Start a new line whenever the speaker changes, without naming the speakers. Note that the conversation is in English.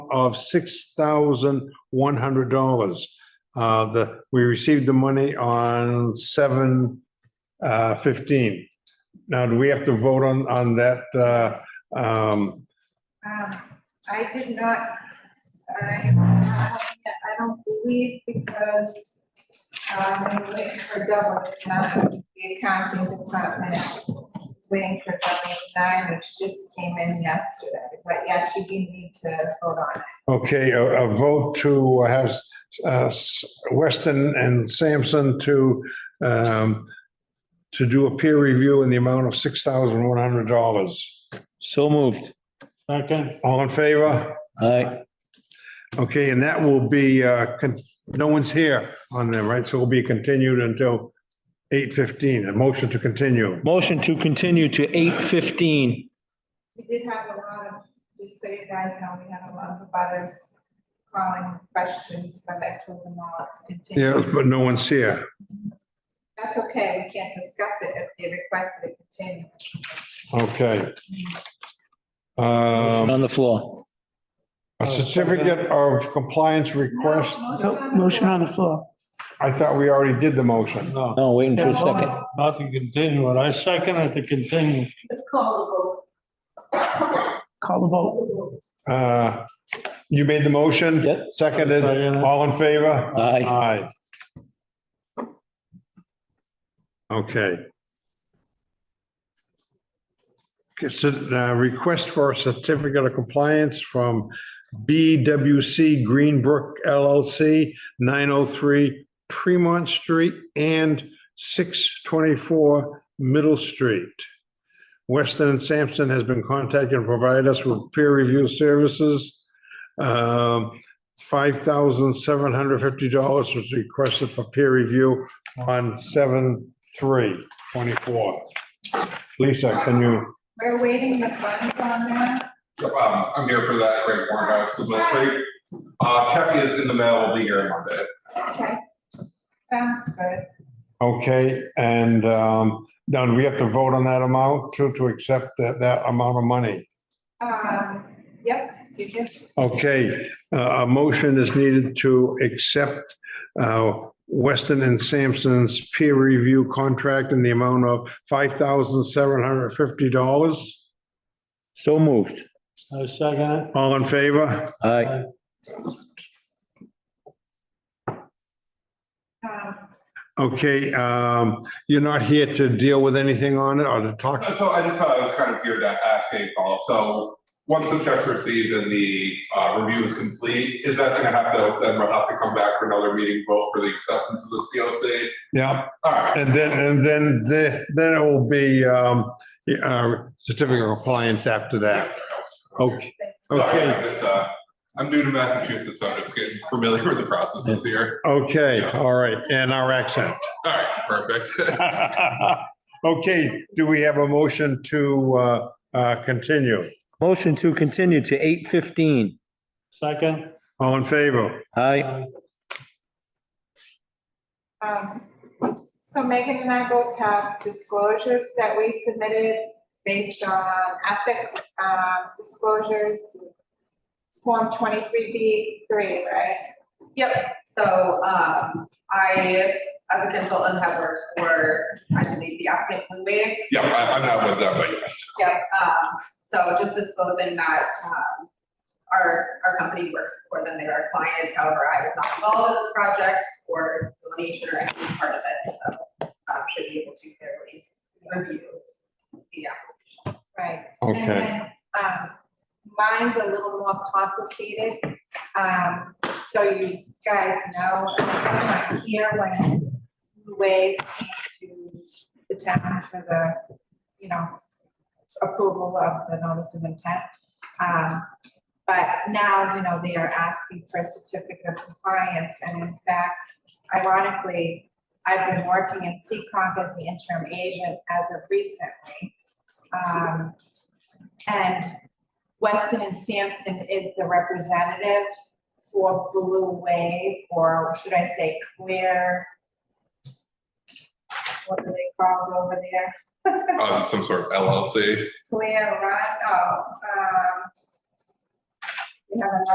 of six thousand one hundred dollars. Uh, the, we received the money on seven uh fifteen. Now, do we have to vote on, on that, uh, um,
Um, I did not, I, I don't believe because, um, we were waiting for double, now the accounting department is waiting for double nine, which just came in yesterday. But yes, you do need to vote on it.
okay, a, a vote to have, uh, Weston and Sampson to, um, to do a peer review in the amount of six thousand one hundred dollars.
So moved.
Second,
All in favor?
Aye.
Okay, and that will be, uh, con- no one's here on them, right? So it'll be continued until 8:15, a motion to continue.
Motion to continue to eight fifteen.
We did have a lot of, just so you guys know, we had a lot of butters calling questions, but I told them all it's continued.
Yeah, but no one's here.
That's okay, we can't discuss it if they requested a continuance.
Okay. Um,
On the floor.
A certificate of compliance request,
on
Nope,
the
motion
floor.
on the floor.
I thought we already did the motion.
no,
No, waiting for a second.
Oh,
not to continue it. I second it to continue.
Call the vote.
Uh, You made the motion?
Yep.
Seconded, all in favor?
Aye.
Aye. Okay. It's a uh, request for a certificate of compliance from BWC Greenbrook LLC, 903 Tremont oh Street and 624 Middle Street. Weston and Sampson has been contacted and provided us with peer review services. Um, five thousand seven hundred fifty dollars was requested for peer review on seven, three, twenty-four. Lisa, can you,
We're waiting the funds on that.
Yep, um, I'm here for that great warrant out to Mill Creek. Uh, Kathy is in the mail, will be here Monday.
Okay. Sounds good.
okay, and um, now do we have to vote on that amount to, to accept that, that amount of money?
Um, yep, you just,
Okay, uh, a motion is needed to accept uh, Weston and Sampson's peer review contract in the amount of five thousand seven hundred fifty dollars.
So moved.
I second it.
All in favor?
Aye.
um,
Okay, um, you're not here to deal with anything on it or to talk?
So I just thought I was kind of here to ask a follow-up. So once the check's received and the, uh, review is complete, is that gonna have to, then we'll have to come back for another meeting, vote for the acceptance of the COC?
Yeah,
All right,
and then, and then, the- then it will be, um, uh, certificate of compliance after that. Okay,
sorry,
okay,
I'm just, uh, I'm new to Massachusetts, so I'm just getting familiar with the processes here.
okay, all right, and our accent.
All right, perfect.
Okay, do we have a motion to, uh, uh, continue?
Motion to continue to eight fifteen.
Second, Uh,
All in favor?
Aye.
um, so Megan and I both have disclosures that we submitted based on ethics, um, disclosures. Form twenty-three B three, right?
Yep, so, um, I, as a consultant, have worked for, I believe, the applicant Blue Wave.
Yeah, I, I'm not with that, but yes.
Yep, um, so just disclosing that, um, our, our company works for them, they're our client, however, I was not involved in this project or delineation or any part of it, so, um, should be able to fairly review the application.
Right. And
Okay,
then, um, Mine's a little more complicated, um, so you guys know, I'm not here when Wade came to the town for the, you know, approval of the notice of intent. Um, but now, you know, they are asking for a certificate of compliance, and in fact, ironically, I've been working in Seccong as the interim agent as of recently. Um, and Weston and Sampson is the representative for Blue Wave, or should I say Clear? What are they called over there?
Uh, is it some sort of LLC?
Clear Run, oh, um. We have another